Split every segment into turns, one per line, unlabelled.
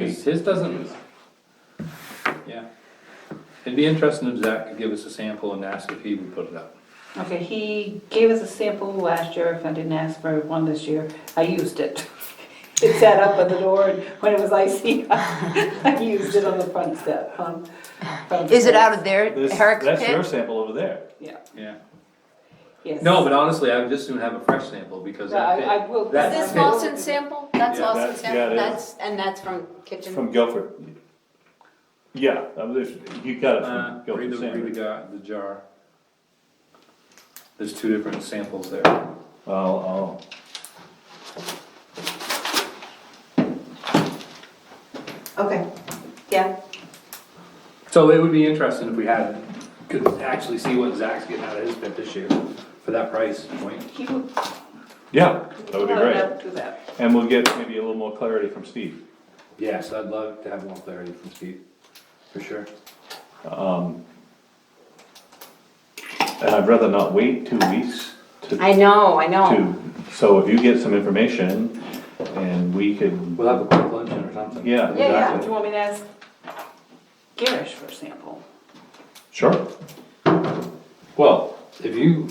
his, his doesn't. Yeah. It'd be interesting if Zach could give us a sample and ask if he would put it up.
Okay, he gave us a sample last year, if I didn't ask for one this year, I used it. It sat up at the door, and when it was icy, I used it on the front step, um. front
Is it
step.
out of their,
This-
Eric's
That's your
pit?
sample over there.
Yeah,
Yeah.
yes.
No, but honestly, I would just soon have a fresh sample because
No, I,
that
I
pit,
will.
that
Is this
pit-
Lawson sample? That's
Yeah,
Lawson
that's- yeah, it
sample,
is.
that's, and that's from kitchen?
From Guilford. Yeah, I was- you got it
uh,
from
read
Guilford
the, read the
Sandwich.
jar, the jar. There's two different samples there.
Oh, oh.
Okay, yeah.
So it would be interesting if we had, could actually see what Zach's getting out of his pit this year for that price point.
He would.
Yeah, that would be
no,
great.
no, Do that.
And we'll get maybe a little more clarity from Steve.
Yes, I'd love to have more clarity from Steve, for sure.
And I'd rather not wait two weeks to,
I know, I know.
to, so if you get some information and we could,
We'll have a quick luncheon or something.
yeah,
Yeah, yeah, do
exactly.
you want me to ask Garish for a sample?
Sure.
Well, if you,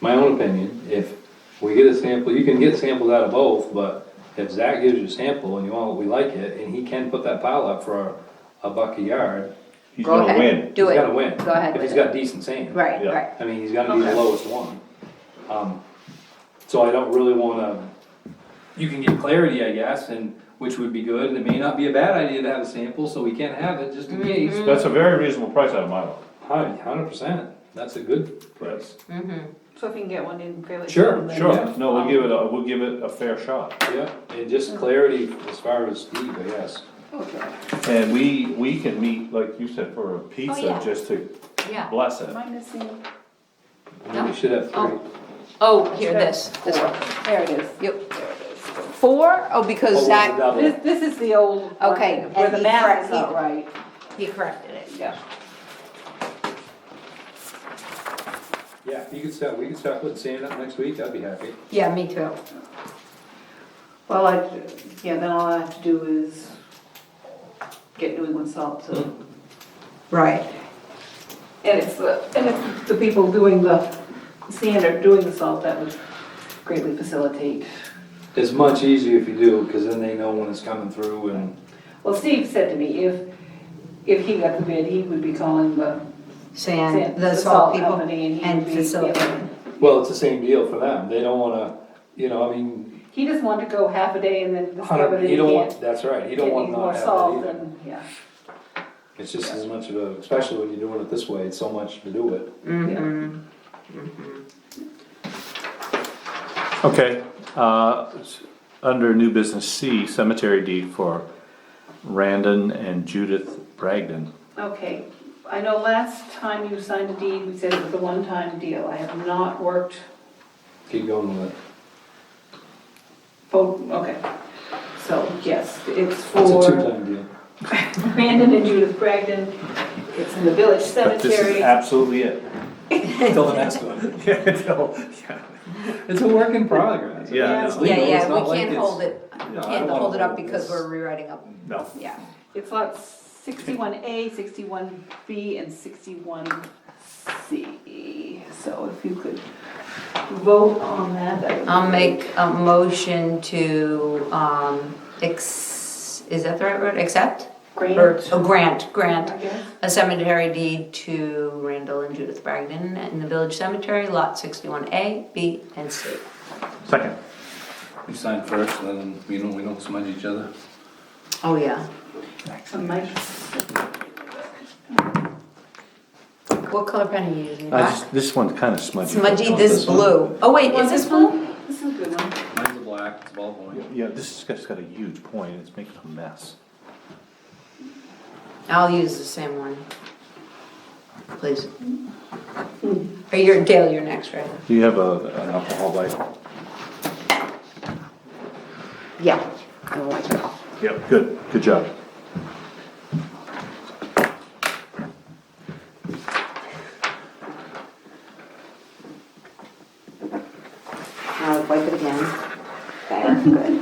my own opinion, if we get a sample, you can get samples out of both, but if Zach gives you a sample and you want, we like it, and he can put that pile up for a buck a yard,
He's
Go
gonna
ahead.
win.
Do it.
he's gotta win.
Go ahead
If he's
with it.
got decent sand.
Right,
Yeah.
right.
I mean, he's gotta be the
Okay.
lowest one. Um, so I don't really wanna, you can get clarity, I guess, and, which would be good, and it may not be a bad idea to have a sample, so we can't have it, just in
Mm-hmm.
case.
That's a very reasonable price out of my book.
Hundred percent, that's a good price.
Mm-hmm.
So if you can get one in fairly.
Sure,
soon, then-
Sure,
Yeah.
no, we'll give it, a we'll give it a fair shot.
Yeah, and just clarity as far as Steve, I guess.
Okay.
And we, we can meet, like you said, for a pizza,
Oh, yeah.
just to
Yeah.
bless it.
Am I missing?
I mean, We should have three.
Oh, here, this, this one.
There it is.
Yep. Four? Oh, because Zach,
Oh,
This,
it's
this is the old. one,
Okay,
Where
and
the
he
math
correct-
is not right,
he corrected it.
yeah.
a double. Yeah, you could start, we could start putting sand up next week, I'd be happy.
Yeah, me too.
Well, I, yeah, then all I have to do is get New England salt to.
Mm-hmm.
Right.
And it's the, and it's the people doing the sand or doing the salt that would greatly facilitate.
It's much easier if you do, because then they know when it's coming through and.
Well, Steve said to me, if, if he got the bid, he would be calling the.
Sand,
the
the salt
salt
people
company and he
and
would be-
facility.
Well, it's the same deal for them, they don't wanna, you know, I mean,
He just wanted to go half a day and then discover
hundred,
that
you
he
don't
can't.
want, that's right, you
get
don't want
any
to
more
not have
salt
that either.
and- Yeah.
It's just as much of a, especially when you're doing it this way, it's so much to do it.
Mhm.
Okay, uh, s- under new business C, cemetery deed for Randon and Judith Bragdon.
Okay, I know last time you signed a deed, we said it was a one-time deal. I have not worked,
Keep going with it.
oh, okay. So, yes, it's
It's a
for
two-time deal.
Brandon and Judith Bragdon. It's in the village
But this is
cemetery.
absolutely it.
Till the next one. It's a work in progress.
Yeah, I know.
It's
Yeah,
legal, it's
yeah,
not
we
like
can't
it's-
hold it,
No, I
can't
don't wanna
hold it up
hold
because
this.
we're rewriting up,
No.
yeah.
It's lots sixty-one A, sixty-one B, and sixty-one C. So if you could vote on that, that would be
I'll
great.
make a motion to, um, ex, is that the right word, accept? Or,
Grant,
oh, grant, grant,
I guess.
a cemetery deed to Randall and Judith Bragdon in the village cemetery, lot sixty-one A, B, and C.
Second.
We sign first, and then, you know, we don't smudge each other.
Oh, yeah.
So Mike,
What color pen are you using?
I
Black?
just, this one's kinda smudgy.
Smudgy,
Oh,
this
one.
blue. Oh, wait,
Want
is this
this
blue?
this is a good one.
Mine's a black, it's ball point.
Yeah, this has got a huge point, it's making a mess.
I'll use the same one. Please. Or your, Dale, you're next, right?
Do you have a, an alcohol light?
Yeah.
Yep. Good, good job.
I'll wipe it again. There, good.